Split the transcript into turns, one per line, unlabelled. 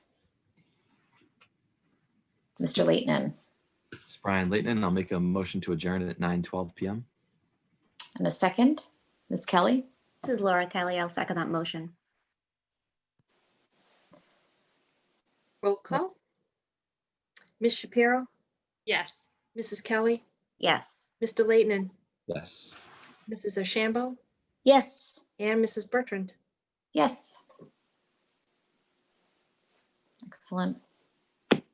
Mr. Leighton
It's Brian Leighton, and I'll make a motion to adjourn at 9:12 PM.
and a second. Ms. Kelly,
This is Laura Kelly. I'll second that motion.
Roll call. Ms. Shapiro,
Yes.
Mrs. Kelly,
Yes.
Mr. Leighton, and
Yes.
Mrs. Ashambo,
Yes.
and Mrs. Bertrand.
yes. Excellent.